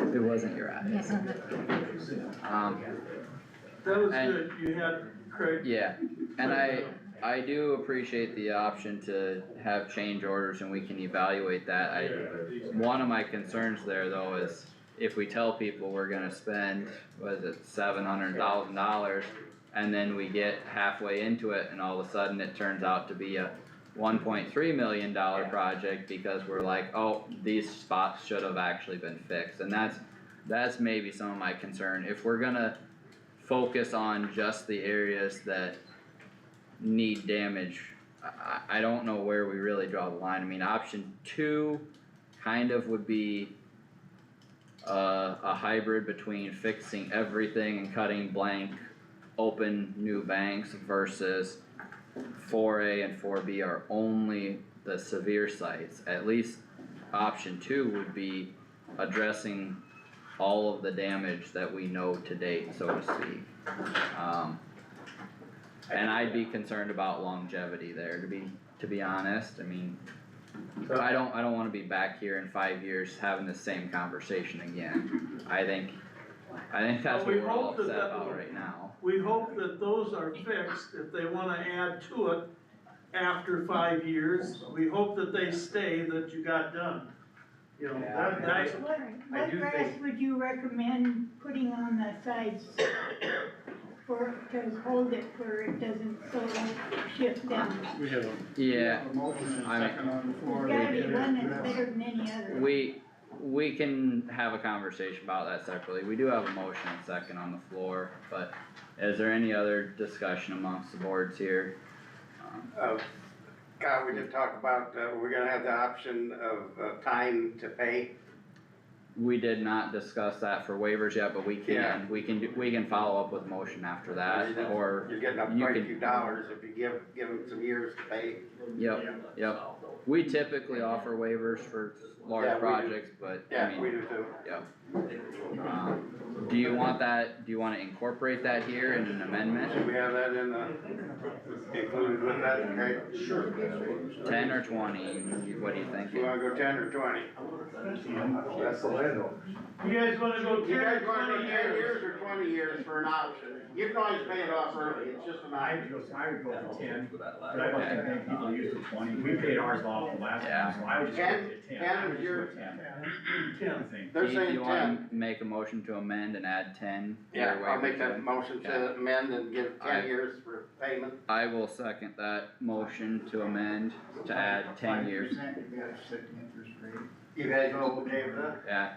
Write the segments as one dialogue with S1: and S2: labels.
S1: it wasn't your eyes. Um,
S2: That was
S1: And-
S2: good, you had Craig.
S1: yeah, and I, I do appreciate the option to have change orders and we can evaluate that. I, one of my concerns there though is if we tell people we're gonna spend, was it seven hundred thousand dollars? And then we get halfway into it and all of a sudden it turns out to be a one point three million dollar project because we're like, oh, these spots should have actually been fixed. And that's, that's maybe some of my concern. If we're gonna focus on just the areas that need damage. I, I I don't know where we really draw the line. I mean, option two kind of would be uh, a hybrid between fixing everything and cutting blank open new banks versus four A and four B are only the severe sites. At least option two would be addressing all of the damage that we know to date, so to speak. Um, and I'd be concerned about longevity there, to be, to be honest, I mean, I don't, I don't wanna be back here in five years having the same conversation again. I think, I think that's what
S2: Well, we
S1: we're all
S2: hope that
S1: upset
S2: that
S1: about
S2: will-
S1: right now.
S2: We hope that those are fixed, if they wanna add to it after five years, we hope that they stay, that you got done. You know, that, that's,
S3: What,
S4: I
S3: what
S4: do
S3: grass
S4: think-
S3: would you recommend putting on the sides for, to hold it where it doesn't so shift down?
S5: We have a.
S1: Yeah,
S5: A motion and
S1: I-
S5: a second on the floor.
S3: There's gotta be
S5: Yeah.
S3: one that's better than any other.
S1: we, we can have a conversation about that separately. We do have a motion and second on the floor, but is there any other discussion amongst the boards here? Um,
S4: Uh, God, we did talk about, uh, we're gonna have the option of, uh, time to pay.
S1: We did not discuss that for waivers yet, but we
S4: Yeah.
S1: can, we can, do- we can follow up with motion after that,
S4: Yeah.
S1: or,
S4: You're getting up
S1: You
S4: quite a
S1: can-
S4: few dollars if you give, give them some years to pay.
S1: yep, yep. We typically offer waivers for
S4: Yeah,
S1: large
S4: we do.
S1: projects, but, I
S4: Yeah, we
S1: mean,
S4: do too.
S1: yep. Um, Do you want that, do you wanna incorporate that here in an
S4: Should
S1: amendment,
S4: we have that in, uh, included with that, okay? Sure.
S1: ten or twenty, You- what do you think?
S4: You wanna go ten or twenty?
S6: That's the landlord.
S2: you guys wanna go
S4: You
S2: ten,
S4: guys wanna go
S2: twenty
S4: ten
S2: years?
S4: years or twenty years for an option? You can always pay it off early, it's just an
S7: I
S4: option.
S7: would go, I would go for ten, but I don't think many people use the twenty, we paid ours
S2: Oh,
S7: off the last
S1: Yeah.
S7: time, so I would just go
S4: Ten?
S7: to ten,
S4: Ten
S7: I
S4: is
S7: would just go
S4: your-
S7: to ten.
S2: Ten.
S7: I think.
S4: They're
S1: Keith,
S4: saying
S1: you wanna
S4: ten.
S1: Make a motion to amend and add ten? to your
S4: Yeah, I'll make
S1: waivers
S4: that
S1: then?
S4: motion to
S1: Yeah.
S4: amend and give
S1: Aye.
S4: ten years for payment.
S1: I will second that motion to amend, to add ten years,
S5: Five percent, you gotta set the interest rate.
S4: You guys all okay with that?
S1: Yeah.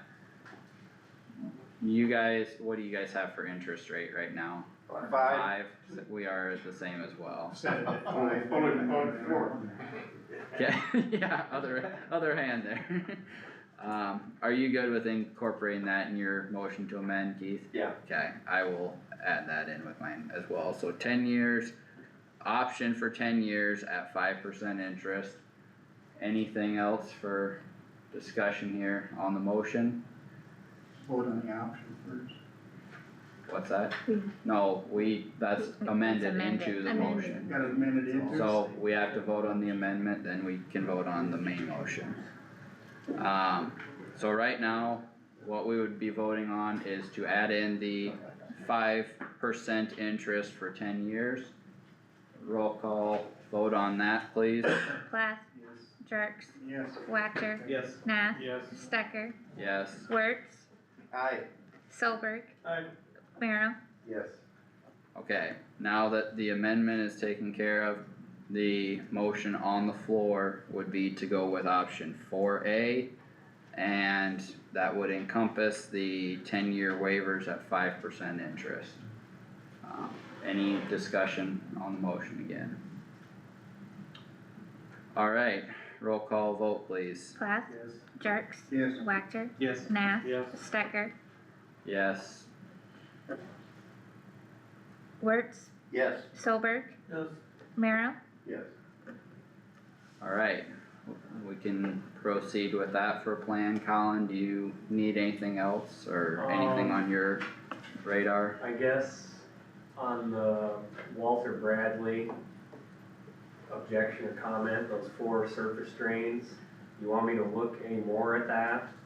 S1: You guys, what do you guys have for interest rate right now?
S4: Five?
S1: Five, we are the same as well.
S5: Set it at
S4: Only-
S5: five.
S4: only- only four.
S1: Okay, yeah, other, other hand there. Um, are you good with incorporating that in your motion to amend, Keith?
S4: Yeah.
S1: Okay, I will add that in with mine as well, so ten years, option for ten years at five percent interest. Anything else for discussion here on the motion?
S5: Vote on the option first.
S1: What's that?
S3: We-
S1: No, we, that's amended
S8: amended,
S1: into the
S8: amended.
S1: motion.
S5: Got it amended interest.
S1: So we have to vote on the amendment, then we can vote on the main motion. Um, so right now, what we would be voting on is to add in the five percent interest for ten years. Roll call, vote on that, please.
S8: Plath, Jerks,
S5: Yes.
S8: Whacker,
S2: Yes.
S8: Nath,
S2: Yes.
S8: Stecker,
S1: Yes,
S8: Wertz,
S4: Aye.
S8: Solberg,
S2: I,
S8: Merrill,
S4: Yes.
S1: okay, now that the amendment is taken care of, the motion on the floor would be to go with option four A. And that would encompass the ten-year waivers at five percent interest. Um, Any discussion on the motion again? Alright, roll call vote please.
S8: Plath,
S5: Yes.
S8: Jerks,
S5: Yes.
S8: Whacker,
S2: Yes.
S8: Nath,
S2: Yes.
S8: Stecker,
S1: Yes,
S8: Wertz,
S4: Yes.
S8: Solberg,
S2: yes.
S8: Merrill,
S4: Yes.
S1: alright, we can proceed with that for plan, Colin, do you need anything else or anything on your radar?
S9: I guess on the Walter Bradley objection or comment, those four surface drains, you want me to look any more at that?